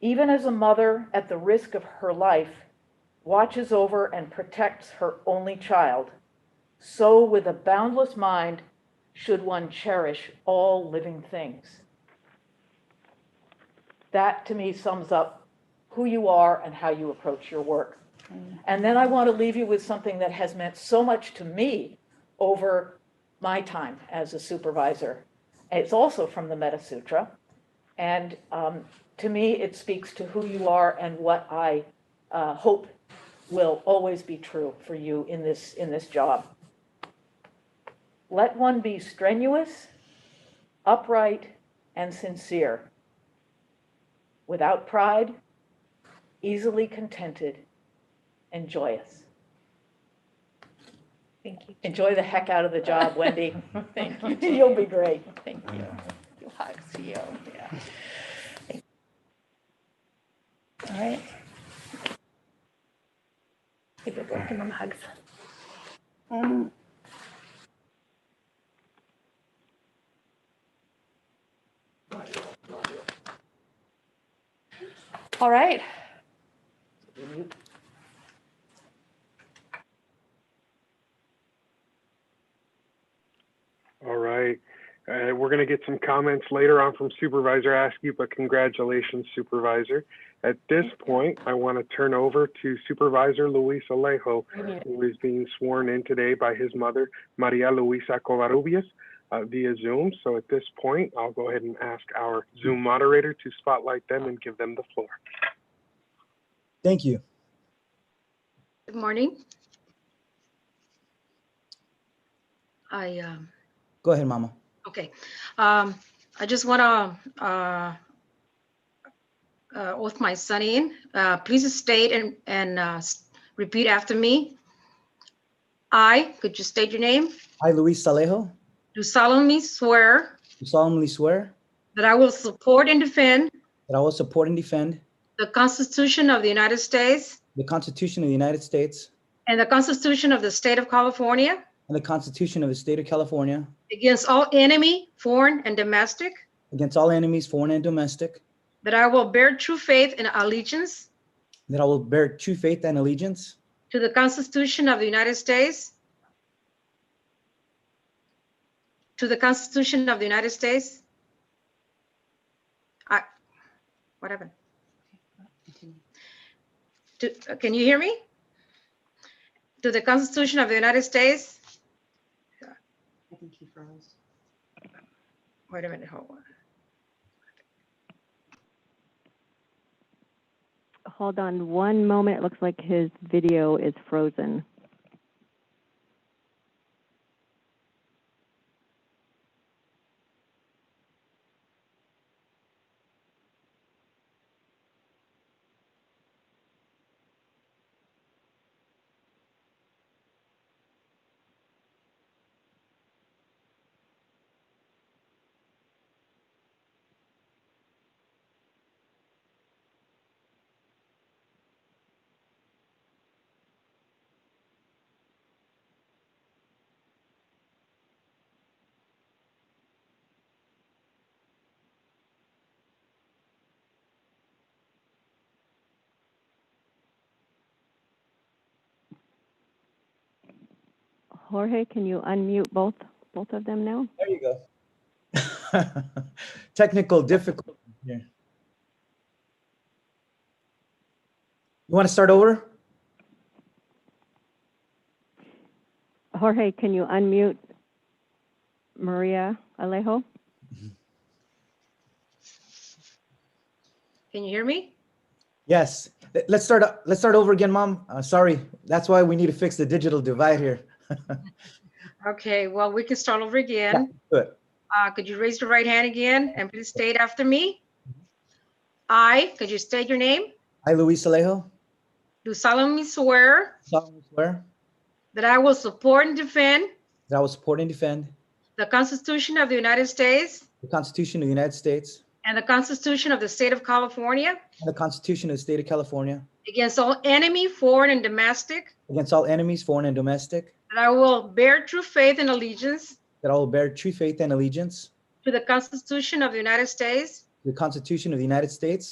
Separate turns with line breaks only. even as a mother at the risk of her life watches over and protects her only child, so with a boundless mind should one cherish all living things. That to me sums up who you are and how you approach your work. And then I want to leave you with something that has meant so much to me over my time as a supervisor. It's also from the Metta Sutra. And um, to me, it speaks to who you are and what I uh, hope will always be true for you in this, in this job. Let one be strenuous, upright, and sincere, without pride, easily contented, and joyous.
Thank you.
Enjoy the heck out of the job, Wendy.
Thank you. Jean.
You'll be great.
Thank you. You hugs, you, yeah. All right. Give it back to them hugs.
Um,
All right.
All right. Uh, we're going to get some comments later on from Supervisor Askew, but congratulations, Supervisor. At this point, I want to turn over to Supervisor Luis Alejo, who is being sworn in today by his mother, Maria Luisa Covarrubias, uh, via Zoom. So at this point, I'll go ahead and ask our Zoom moderator to spotlight them and give them the floor.
Thank you.
Good morning. I, um,
Go ahead, Mama.
okay, um, I just want to, uh, uh, oath my son in. Uh, please state and, and, uh, s- repeat after me. I, could you state your name?
I, Luis Salejo,
Do solemnly swear
do solemnly swear
that I will support and defend
that I will support and defend
the Constitution of the United States
the Constitution of the United States
and the Constitution of the State of California
and the Constitution of the State of California
against all enemy, foreign and domestic,
against all enemies, foreign and domestic,
that I will bear true faith and allegiance
that I will bear true faith and allegiance
To the Constitution of the United States. To the Constitution of the United States. I, what happened? To, can you hear me? To the Constitution of the United States.
I think he froze.
Wait a minute, hold on.
Hold on one moment. It looks like his video is frozen. Jorge, can you unmute both both of them now?
There you go. Technical difficulty here. You want to start over?
Jorge, can you unmute Maria Alejo?
Can you hear me?
Yes. Let- Let's start. o- Let's start over again, Mom. Uh, sorry. That's why we need to fix the digital divide here.
Okay, well, we can start over again.
Good.
Uh, could you raise your right hand again and please state after me? I, could you state your name?
I, Luis Alejo,
Do solemnly swear
solemnly swear
that I will support and defend
that I will support and defend
the Constitution of the United States
the Constitution of the United States
and the Constitution of the State of California
and the Constitution of the State of California
against all enemy, foreign and domestic,
against all enemies, foreign and domestic,
that I will bear true faith and allegiance
that I will bear true faith and allegiance
to the Constitution of the United States
to the Constitution of the United States